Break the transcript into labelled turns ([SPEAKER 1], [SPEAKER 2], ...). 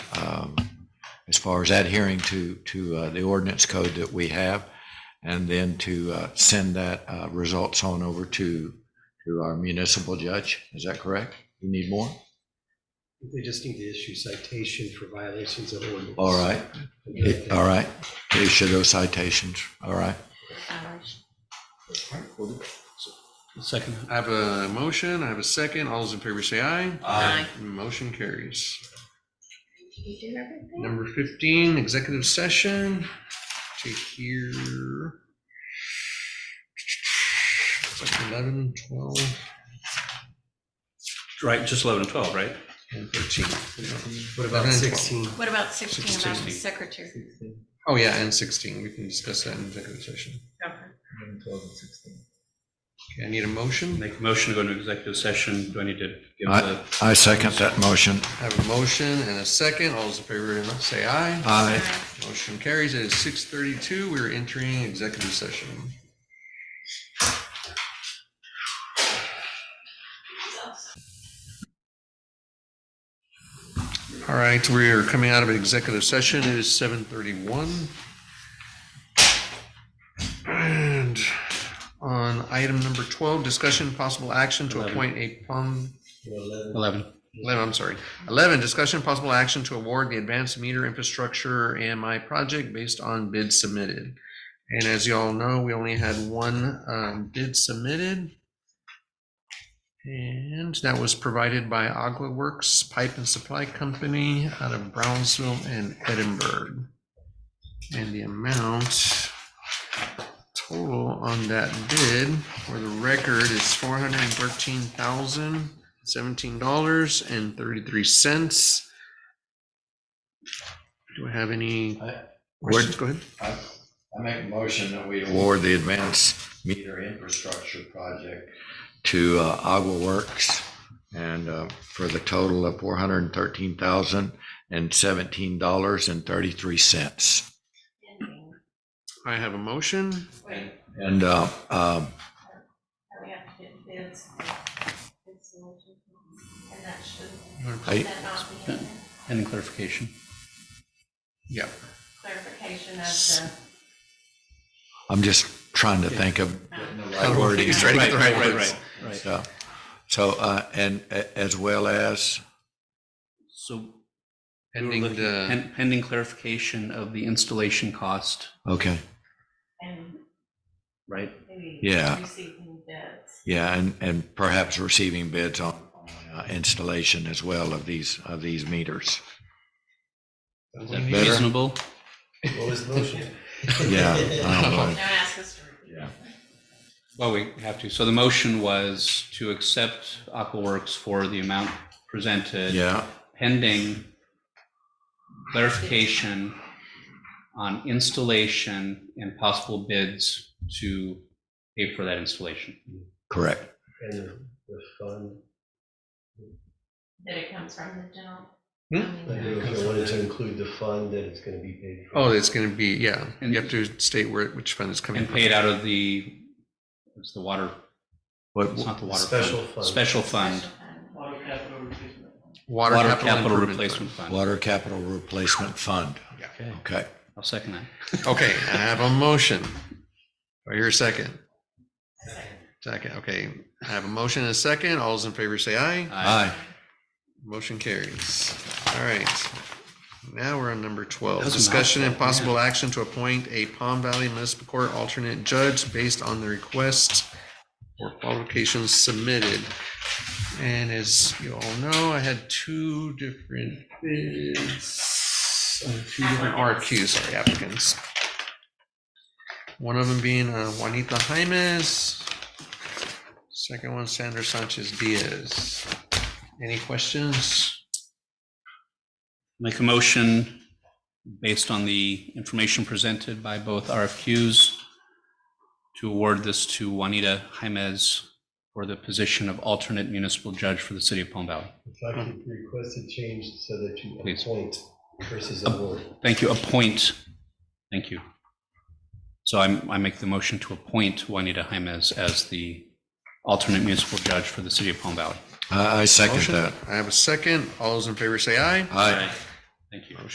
[SPEAKER 1] far um, as adhering to, to uh, the ordinance code that we have, and then to uh, send that uh, results on over to, to our municipal judge. Is that correct? You need more?
[SPEAKER 2] They just need to issue citation for violations of ordinance.
[SPEAKER 1] All right, It- all right. Issue those citations, all right.
[SPEAKER 3] hours.
[SPEAKER 2] Second.
[SPEAKER 4] I have a motion, I have a second. All those in favor say aye.
[SPEAKER 3] Aye.
[SPEAKER 4] Motion carries.
[SPEAKER 3] You do everything?
[SPEAKER 4] Number fifteen, executive session to hear. It's like eleven, twelve,
[SPEAKER 5] Right, just 11 and 12, right?
[SPEAKER 4] and thirteen.
[SPEAKER 2] What about 16?
[SPEAKER 3] What about 16 about the
[SPEAKER 4] Sixty.
[SPEAKER 3] secretary?
[SPEAKER 4] Oh, yeah, and sixteen. We can discuss that in executive session. Okay, I need a motion.
[SPEAKER 5] Make a motion to go into executive session. Do I need to give
[SPEAKER 1] I,
[SPEAKER 5] the?
[SPEAKER 1] I second that motion.
[SPEAKER 4] I have a motion and a second. All those in favor say aye.
[SPEAKER 1] Aye.
[SPEAKER 3] Aye.
[SPEAKER 4] Motion carries. It is six thirty-two. We're entering executive session. All right, we are coming out of executive session. It is seven thirty-one. And on item number twelve, discussion possible action to
[SPEAKER 5] Eleven.
[SPEAKER 4] appoint a pump
[SPEAKER 5] 11.
[SPEAKER 4] 11, I'm sorry. 11, discussion possible action to award the advanced meter infrastructure AMI project based on bid submitted. And as you all know, we only had one um, bid submitted. And that was provided by Agua Works Pipe and Supply Company out of Brownsville and Edinburgh. And the amount total on that bid for the record is four hundred and thirteen thousand seventeen dollars and thirty-three cents. Do I have any
[SPEAKER 1] I-
[SPEAKER 4] questions? Go ahead.
[SPEAKER 1] I I make a motion that we award the advanced meter infrastructure project to uh, Agua Works and uh, for the total of four hundred and thirteen thousand and seventeen dollars and thirty-three cents.
[SPEAKER 3] Ending.
[SPEAKER 4] I have a motion.
[SPEAKER 3] Wait,
[SPEAKER 1] And uh, um,
[SPEAKER 3] we have to get bids. bids and motion. And that should,
[SPEAKER 1] I-
[SPEAKER 3] should that not be in there?
[SPEAKER 5] Pending clarification.
[SPEAKER 4] Yeah.
[SPEAKER 3] clarification of the,
[SPEAKER 1] I'm just trying to think of the right wording.
[SPEAKER 4] He's trying to get the right words.
[SPEAKER 5] right.
[SPEAKER 1] So- So, uh, and a- as well as,
[SPEAKER 5] So we were
[SPEAKER 4] Pending
[SPEAKER 5] looking-
[SPEAKER 4] the-
[SPEAKER 5] pen- pending clarification of the installation cost,
[SPEAKER 1] okay,
[SPEAKER 3] and
[SPEAKER 5] right?
[SPEAKER 3] maybe
[SPEAKER 1] Yeah.
[SPEAKER 3] receiving bids.
[SPEAKER 1] yeah, and, and perhaps receiving bids on uh, installation as well of these, of these meters.
[SPEAKER 4] Sounds like
[SPEAKER 1] That
[SPEAKER 4] me.
[SPEAKER 1] better?
[SPEAKER 5] Reasonable.
[SPEAKER 2] What was the motion?
[SPEAKER 1] Yeah. I don't know.
[SPEAKER 3] Don't ask us to repeat.
[SPEAKER 1] Yeah.
[SPEAKER 5] Well, we have to. So the motion was to accept Aquaworks for the amount presented.
[SPEAKER 1] Yeah,
[SPEAKER 5] pending clarification on installation and possible bids to pay for that installation.
[SPEAKER 1] correct.
[SPEAKER 2] And the fund.
[SPEAKER 3] That it comes from the general.
[SPEAKER 4] Hmm?
[SPEAKER 3] I
[SPEAKER 2] I
[SPEAKER 3] mean,
[SPEAKER 2] knew if I wanted to include the fund, that it's going to be paid for.
[SPEAKER 4] Oh, it's going to be, yeah. You have to state where, which fund is coming
[SPEAKER 5] And
[SPEAKER 4] from.
[SPEAKER 5] pay it out of the, it's the water,
[SPEAKER 1] What,
[SPEAKER 5] it's not the water.
[SPEAKER 2] Special fund.
[SPEAKER 5] Special fund,
[SPEAKER 3] special fund.
[SPEAKER 4] Water
[SPEAKER 5] water
[SPEAKER 4] capital
[SPEAKER 5] capital
[SPEAKER 4] improvement.
[SPEAKER 5] replacement fund.
[SPEAKER 1] Water Capital Replacement Fund,
[SPEAKER 5] Okay,
[SPEAKER 1] okay.
[SPEAKER 5] I'll second that.
[SPEAKER 4] Fund. Okay, I have a motion. Right here, second. Second, okay. I have a motion and a second. All those in favor say aye.
[SPEAKER 5] Aye.
[SPEAKER 4] Motion carries. All right. Now we're on number 12.
[SPEAKER 5] That was a
[SPEAKER 4] Discussion and
[SPEAKER 5] mouthful, man.
[SPEAKER 4] possible action to appoint a Palm Valley Municipal Court alternate judge based on the request or qualifications submitted. And as you all know, I had two different bids, uh, two different RFQs, sorry, applicants. One of them being uh, Juanita Jaimes, second one Sandra Sanchez Diaz. Any questions?
[SPEAKER 5] Make a motion based on the information presented by both RFQs to award this to Juanita Jaimez for the position of alternate municipal judge for the city of Palm Valley.
[SPEAKER 2] If I could request a change so that you
[SPEAKER 5] Please.
[SPEAKER 2] appoint versus
[SPEAKER 1] Um,
[SPEAKER 2] award.
[SPEAKER 5] Thank you, appoint, thank you. So I'm, I make the motion to appoint Juanita Jaimez as the alternate municipal judge for the city of Palm Valley.
[SPEAKER 1] I, I second
[SPEAKER 4] Motion.
[SPEAKER 1] that.
[SPEAKER 4] I have a second. All those in favor say aye.
[SPEAKER 1] Aye,